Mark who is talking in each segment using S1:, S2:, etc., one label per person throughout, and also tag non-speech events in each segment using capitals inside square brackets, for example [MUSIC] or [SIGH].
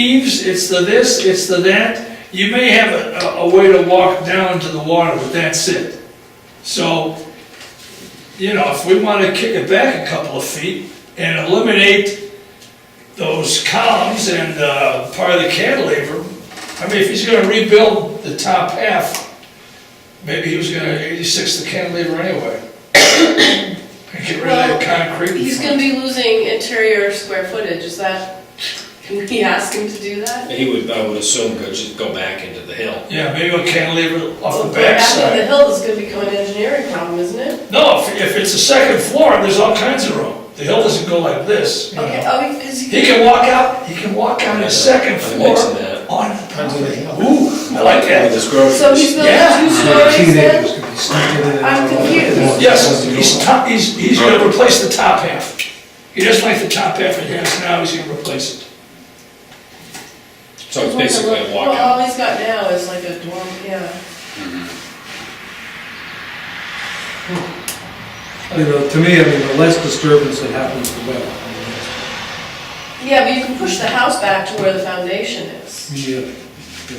S1: eaves, it's the this, it's the that. You may have a, a- a way to walk down to the water, but that's it. So, you know, if we wanna kick it back a couple of feet and eliminate those columns and, uh, part of the cantilever, I mean, if he's gonna rebuild the top half, maybe he was gonna eighty-six the cantilever anyway. [COUGHS] And get rid of that concrete.
S2: He's gonna be losing interior square footage, is that, can we ask him to do that?
S3: He would, I would assume, go, just go back into the hill.
S1: Yeah, maybe a cantilever off the
S2: After the
S1: backside.
S2: hill is gonna become an engineering problem, isn't it?
S1: No, if, if it's a second floor, there's all kinds of room. The hill doesn't go like this, you
S2: Okay,
S1: know.
S2: oh, because
S1: He can walk out, he can walk out his second
S3: I'm
S1: floor
S3: mixing that.
S1: on the property. Ooh, I like that.
S3: This growth.
S2: so he's
S1: Yeah.
S2: building two stories
S4: Teenagers
S2: then?
S4: could be sneaking in and
S2: I'm
S4: out.
S2: confused.
S1: Yes, he's top, he's, he's gonna replace the top half. He doesn't like the top half he has now, he's gonna replace it.
S3: So it's basically a
S2: Well,
S3: walkout.
S2: all he's got now is like a dorm, yeah.
S4: You know, to me, I mean, the less disturbance that happens, the better. I mean,
S2: Yeah, but you can push the house back to where the foundation is,
S4: that's- yeah.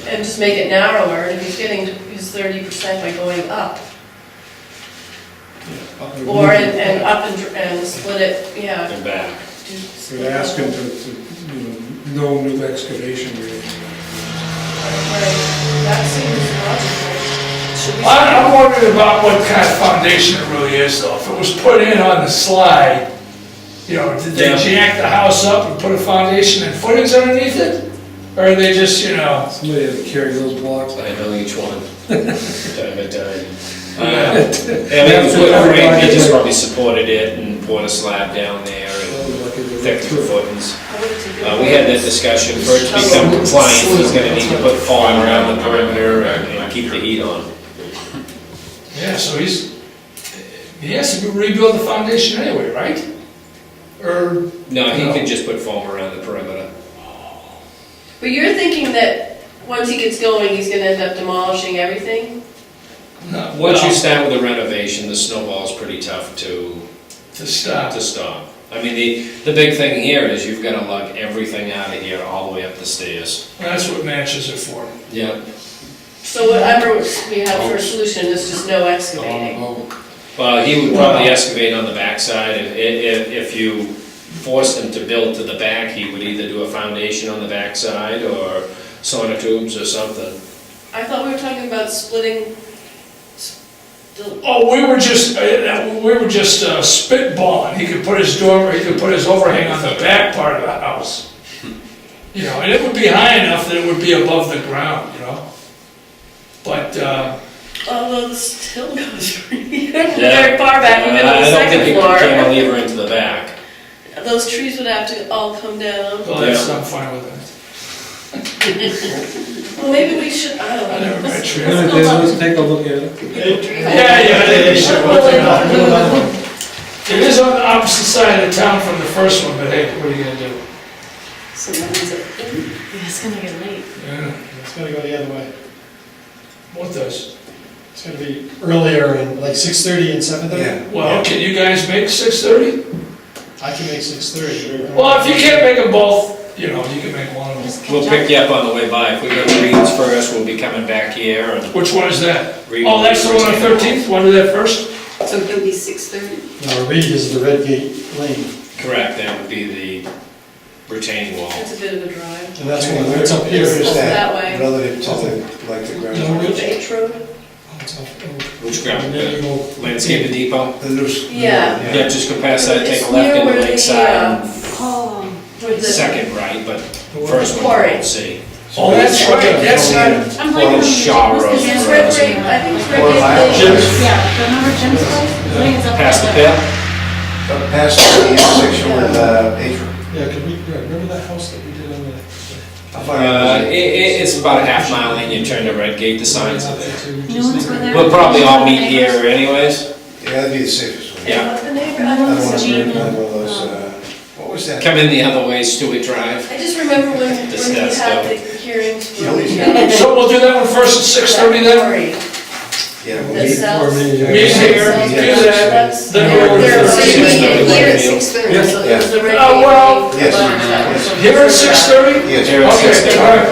S2: and just make it narrower, and if he's getting his thirty percent by going up, or, and, and up and, dr- and split it, yeah.
S3: And back.
S2: do-
S4: So they ask him to, to, you know, no new excavation or anything.
S2: Right, that seems logical. Should we?
S1: I- I'm wondering about what kind of foundation it really is though. If it was put in on the slide, you know, did they
S3: Yeah.
S1: jack the house up and put a foundation and footings underneath it? Or are they just, you know,
S4: Somebody had to carry those blocks.
S3: I know each
S2: [LAUGHS]
S3: one. Time by time. Uh, I mean, it was what Frank, he just probably supported it and poured a slab down there and thick the footings. Uh, we had that discussion, for it to become compliant, he's gonna need to put foam around the perimeter and and keep the heat on.
S1: yeah, so he's, he has to rebuild the foundation anyway, right? Or,
S3: No, he can just put foam around the perimeter.
S2: But you're thinking that once he gets going, he's gonna end up demolishing everything?
S1: no, what
S3: Once you
S1: you,
S3: start with the renovation, the snowball's pretty tough to
S1: to stop.
S3: to stop. I mean, the, the big thing here is you've gotta lug everything out of here all the way up the stairs.
S1: That's what matches are for.
S3: Yeah.
S2: So whatever we have for a solution is just no excavating.
S3: Well, he would probably excavate on the backside, if, if, if you forced him to build to the back, he would either do a foundation on the backside or sonotubes or something.
S2: I thought we were talking about splitting, s- the-
S1: Oh, we were just, uh, we were just uh, spitballing. He could put his dormer, he could put his overhang on the back part of the house. You know, and it would be high enough that it would be above the ground, you know? But, uh,
S2: although this hill goes [LAUGHS] very far back, even on the
S3: Uh, I don't think
S2: second
S3: you can
S2: floor.
S3: cantilever into the back.
S2: Those trees would have to all come down.
S1: well, that's, I'm fine with
S2: Well, maybe we should, I don't
S1: it. I
S2: know.
S1: never met
S2: Let's-
S1: you.
S2: let's go
S4: Let's
S2: talk
S4: take a look at it.
S2: to the
S1: [LAUGHS]
S2: trees.
S1: Yeah, yeah, they should
S2: Well,
S1: work
S2: they
S1: it out.
S2: don't move.
S1: It is on the opposite side of town from the first one, but hey, what are you gonna do?
S2: So that means that, yeah, it's gonna get late.
S1: Yeah,
S5: It's gonna go the other way.
S1: What does?
S5: It's gonna be earlier and like six thirty and seven thirty?
S1: Well, can you guys make six thirty?
S5: I can make six thirty.
S1: Well, if you can't make them both, you know, you can make one of them.
S3: We'll pick you up on the way by, if we go to Reed's first, we'll be coming back here and.
S1: Which one is that?
S3: Reed-
S1: Oh, that's the one on Thirteenth, one of that first?
S6: So it'll be six thirty?
S5: No, Reed is the Red Gate Lane,
S3: Correct, that would be the retaining wall.
S2: It's a bit of a drive.
S5: and that's one, it's up here.
S2: It's
S5: It's
S2: up
S5: up-
S2: that way.
S7: Relative to the, like the
S5: No,
S7: ground,
S5: really.
S2: The H road?
S3: Which ground?
S5: And then you go-
S3: Landscape the depot?
S7: the new. s-
S2: Yeah.
S3: Yeah, just go past that, take
S2: It's
S3: a left
S2: near
S3: into
S2: where the,
S3: Lakeside,
S2: uh,
S6: Oh,
S2: where the-
S3: second right, but first one
S2: Quarry.
S3: you won't see.
S1: Oh, that's right, that's not,
S6: I'm
S3: Or
S6: like.
S3: Shaw Road.
S2: Is this Red Gate, I think it's Red
S7: Or
S2: Gate
S7: Lyle
S2: Lane.
S7: Jim's,
S6: Yeah, remember Jim's place? I think it's up
S3: Past the
S6: there.
S3: pit?
S7: uh, Past the intersection with, uh, Atrium.
S5: Yeah, could we, yeah, remember that house that we did on the?
S7: I'll find out.
S3: Uh, it, it, it's about a half mile in, you turn to Red Gate, the signs are there.
S6: No one's over there.
S3: We'll probably all meet here anyways.
S7: Yeah, that'd be the safest one.
S3: Yeah.
S2: And what the neighbor, I
S6: I
S7: I
S2: don't
S7: don't
S2: know.
S7: want
S6: It's
S7: to do
S6: Gene
S7: another one of
S6: and,
S7: those,
S6: um,
S7: uh, what was that?
S3: Come in the other way, Stewart Drive.
S2: I just remember when, when we
S3: Discuss
S2: had
S3: them.
S2: the hearings.
S7: Kill these
S1: so we'll do that one first at six thirty then?
S2: Sorry.
S7: Yeah.
S4: That sells.
S1: Meet here,
S4: Sells
S1: do
S4: the
S1: that,
S4: products.
S1: then we're over
S2: They're
S1: to
S2: like,
S3: Six
S2: meeting
S3: thirty.
S2: here at six thirty, so
S7: Yeah.
S2: there's a regular
S1: Oh, well.
S2: meeting.
S7: Yes.
S2: Lunch hour.
S7: Yes.
S1: Here at six thirty?
S7: Yes.
S3: Here at
S1: Okay,
S3: 6:30.
S1: all right.